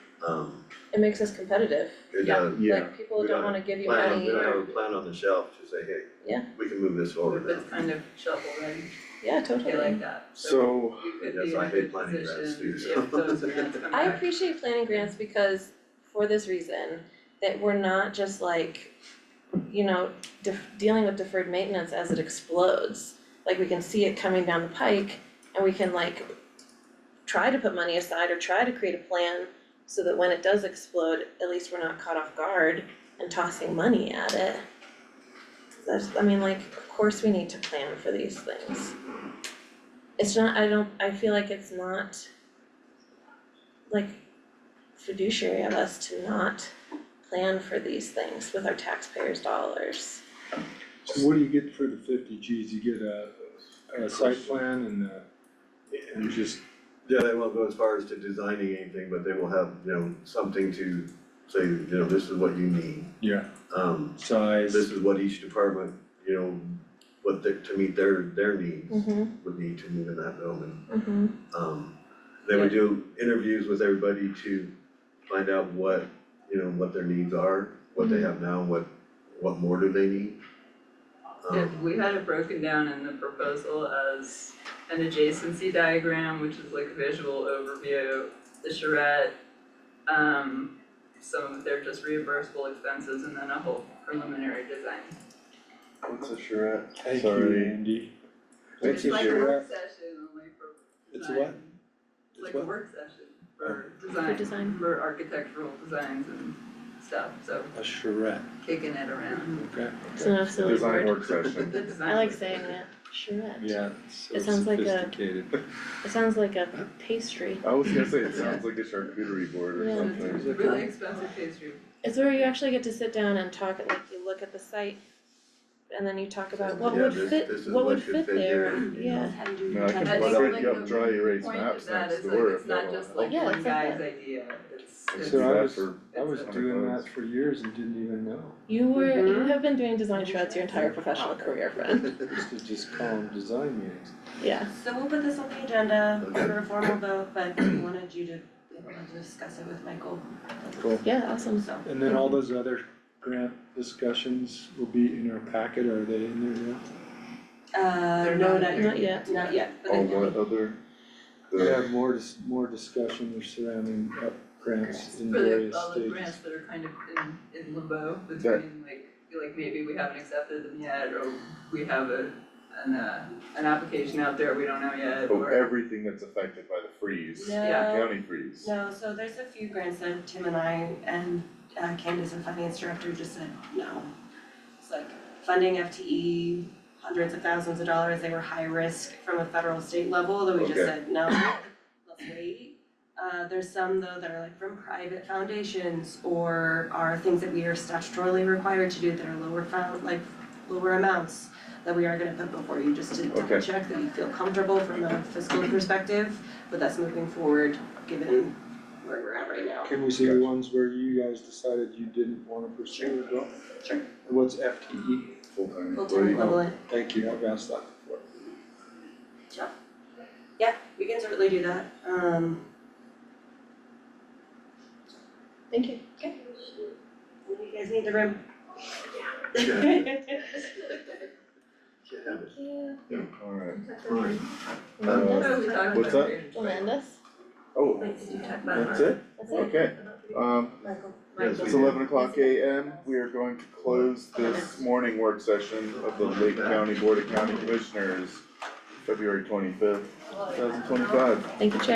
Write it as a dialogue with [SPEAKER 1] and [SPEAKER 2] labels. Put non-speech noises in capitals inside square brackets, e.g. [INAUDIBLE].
[SPEAKER 1] Um,
[SPEAKER 2] it makes us competitive,
[SPEAKER 1] You're
[SPEAKER 3] Yeah.
[SPEAKER 1] done.
[SPEAKER 4] Yeah,
[SPEAKER 2] like people
[SPEAKER 1] We
[SPEAKER 2] don't
[SPEAKER 1] don't
[SPEAKER 2] wanna give you
[SPEAKER 1] uh, Plan on,
[SPEAKER 2] money
[SPEAKER 1] we don't
[SPEAKER 2] or,
[SPEAKER 1] have a plan on the shelf to say, hey,
[SPEAKER 2] Yeah.
[SPEAKER 1] we can move this forward now.
[SPEAKER 3] It's kind of shovel ready,
[SPEAKER 2] yeah,
[SPEAKER 3] I
[SPEAKER 2] totally.
[SPEAKER 3] feel like that, so
[SPEAKER 4] so,
[SPEAKER 3] you could
[SPEAKER 1] Yes,
[SPEAKER 3] be in
[SPEAKER 1] I
[SPEAKER 3] a
[SPEAKER 1] hate
[SPEAKER 3] good
[SPEAKER 1] planning grants
[SPEAKER 3] position
[SPEAKER 1] too, so.
[SPEAKER 3] if those grants come
[SPEAKER 2] I
[SPEAKER 3] back.
[SPEAKER 2] appreciate planning grants because, for this reason, that we're not just like, you know, def- dealing with deferred maintenance as it explodes. Like, we can see it coming down the pike and we can like try to put money aside or try to create a plan so that when it does explode, at least we're not caught off guard and tossing money at it. That's, I mean, like, of course we need to plan for these things. It's not, I don't, I feel like it's not like fiduciary of us to not plan for these things with our taxpayers' dollars.
[SPEAKER 4] so what do you get for the fifty Gs? You get a, a site plan and, uh, and just,
[SPEAKER 1] Yeah, they won't go as far as to designing anything, but they will have, you know, something to say, you know, this is what you need.
[SPEAKER 4] yeah,
[SPEAKER 1] Um,
[SPEAKER 4] size,
[SPEAKER 1] this is what each department, you know, what they, to meet their, their needs
[SPEAKER 2] Mm-hmm,
[SPEAKER 1] would need to move in that building.
[SPEAKER 2] mm-hmm.
[SPEAKER 1] Um, they would do interviews with everybody to find out what, you know, what their needs are, what
[SPEAKER 2] Mm-hmm.
[SPEAKER 1] they have now, what, what more do they need?
[SPEAKER 3] If
[SPEAKER 1] Um,
[SPEAKER 3] we had it broken down in the proposal as an adjacency diagram, which is like a visual overview, the charrette, um, some of their just reimbursable expenses and then a whole preliminary design.
[SPEAKER 5] What's a charrette?
[SPEAKER 4] thank you,
[SPEAKER 5] Sorry.
[SPEAKER 4] Andy.
[SPEAKER 5] What's
[SPEAKER 3] It's
[SPEAKER 5] a
[SPEAKER 3] like a
[SPEAKER 5] charrette?
[SPEAKER 3] work session only for
[SPEAKER 4] It's a
[SPEAKER 3] design.
[SPEAKER 4] what?
[SPEAKER 3] It's like
[SPEAKER 4] what?
[SPEAKER 3] a work session for design,
[SPEAKER 2] design.
[SPEAKER 3] for architectural designs and stuff, so
[SPEAKER 4] A charrette,
[SPEAKER 3] kicking it around.
[SPEAKER 4] okay,
[SPEAKER 2] It's not a silly word.
[SPEAKER 5] Design work session.
[SPEAKER 3] The design
[SPEAKER 2] Mhm. I like
[SPEAKER 3] was-
[SPEAKER 2] saying that, charrette.
[SPEAKER 4] yeah, it's so
[SPEAKER 2] It sounds like a-
[SPEAKER 4] sophisticated.
[SPEAKER 2] It sounds like a pastry.
[SPEAKER 5] I was gonna say, it sounds like a charcuterie board or
[SPEAKER 2] Yeah.
[SPEAKER 3] It's
[SPEAKER 5] something.
[SPEAKER 3] a really expensive pastry.
[SPEAKER 2] It's where you actually get to sit down and talk, like you look at the site and then you talk about what
[SPEAKER 1] Yeah,
[SPEAKER 2] would
[SPEAKER 1] this-
[SPEAKER 2] fit,
[SPEAKER 1] this is
[SPEAKER 2] what would
[SPEAKER 1] should
[SPEAKER 2] fit
[SPEAKER 1] fit
[SPEAKER 2] there,
[SPEAKER 1] here,
[SPEAKER 2] and-
[SPEAKER 1] you know.
[SPEAKER 2] yeah.
[SPEAKER 5] No, I
[SPEAKER 3] I
[SPEAKER 5] can
[SPEAKER 3] think
[SPEAKER 5] print
[SPEAKER 3] like
[SPEAKER 5] you
[SPEAKER 3] the
[SPEAKER 5] up dry erase
[SPEAKER 3] Point
[SPEAKER 5] maps
[SPEAKER 3] of that
[SPEAKER 5] next
[SPEAKER 3] is
[SPEAKER 5] to
[SPEAKER 3] like,
[SPEAKER 5] word
[SPEAKER 3] it's
[SPEAKER 5] if I
[SPEAKER 3] not
[SPEAKER 5] want.
[SPEAKER 3] just like
[SPEAKER 2] Yeah,
[SPEAKER 3] one
[SPEAKER 2] it's like
[SPEAKER 3] guy's idea, it's,
[SPEAKER 5] I
[SPEAKER 3] it's.
[SPEAKER 4] So I was-
[SPEAKER 5] for
[SPEAKER 4] I was doing that for years and didn't even know,
[SPEAKER 2] You were, you
[SPEAKER 3] Mhm.
[SPEAKER 2] have been doing design charrettes your entire professional career,
[SPEAKER 1] [LAUGHS]
[SPEAKER 2] friend,
[SPEAKER 4] I used to just call them design meetings.
[SPEAKER 2] yeah.
[SPEAKER 6] So we'll put this on the agenda
[SPEAKER 1] Okay.
[SPEAKER 6] for a formal vote, but we wanted you to be able to discuss it with Michael.
[SPEAKER 4] Cool.
[SPEAKER 2] Yeah, awesome.
[SPEAKER 6] So,
[SPEAKER 4] And then all those other grant discussions will be in our packet, are they in there now?
[SPEAKER 6] uh,
[SPEAKER 3] They're
[SPEAKER 6] no,
[SPEAKER 3] not here.
[SPEAKER 6] not
[SPEAKER 2] Not yet.
[SPEAKER 6] yet, not yet, but
[SPEAKER 5] Oh,
[SPEAKER 6] they will
[SPEAKER 5] what
[SPEAKER 6] be.
[SPEAKER 5] other?
[SPEAKER 4] We
[SPEAKER 5] The-
[SPEAKER 4] have more dis- more discussion surrounding up grants in
[SPEAKER 3] For
[SPEAKER 4] various
[SPEAKER 3] the, all the
[SPEAKER 4] stages.
[SPEAKER 3] grants that are kind of in, in limbo
[SPEAKER 5] That-
[SPEAKER 3] between like, feel like maybe we haven't accepted them yet, or we have a, an, uh, an application out there we don't know yet,
[SPEAKER 5] Oh,
[SPEAKER 3] or.
[SPEAKER 5] everything that's affected by the freeze,
[SPEAKER 3] Yeah.
[SPEAKER 6] No,
[SPEAKER 5] county freeze.
[SPEAKER 6] no, so there's a few grants that Tim and I and uh, Candace, the finance director, just said no. It's like funding FTE, hundreds of thousands of dollars, they were high risk from a federal state level, that we just
[SPEAKER 5] Okay.
[SPEAKER 6] said, no, let's wait. Uh, there's some though that are like from private foundations or are things that we are statutorily required to do that are lower found, like lower amounts that we are gonna put before you, just to double
[SPEAKER 5] Okay.
[SPEAKER 6] check that you feel comfortable from a fiscal perspective with us moving forward, given where we're at right now.
[SPEAKER 4] Can we see the ones where you guys decided you didn't wanna pursue as well?
[SPEAKER 6] Sure.
[SPEAKER 4] What's E FTE?
[SPEAKER 5] Full-time
[SPEAKER 6] Full-time
[SPEAKER 5] employee.
[SPEAKER 6] equivalent,
[SPEAKER 4] Thank you, I've asked that before.
[SPEAKER 6] yeah, we can certainly do that, um.
[SPEAKER 2] Thank you.
[SPEAKER 6] Okay. You guys need the room. [LAUGHS]
[SPEAKER 1] Yeah.
[SPEAKER 5] Yeah, alright.
[SPEAKER 1] Right.
[SPEAKER 2] Melinda?
[SPEAKER 3] Oh, we talked about
[SPEAKER 5] What's
[SPEAKER 3] it
[SPEAKER 5] that?
[SPEAKER 3] here.
[SPEAKER 2] Melinda?
[SPEAKER 5] Oh,
[SPEAKER 3] Wait, did you talk about it?
[SPEAKER 5] that's it?
[SPEAKER 2] That's it?
[SPEAKER 5] Okay, um,
[SPEAKER 1] Yes, we
[SPEAKER 5] it's
[SPEAKER 1] do.
[SPEAKER 5] eleven o'clock AM, we are going to close this morning work session of the Lake County Board of County Commissioners, February twenty-fifth, two thousand twenty-five.
[SPEAKER 2] Thank you, Chad.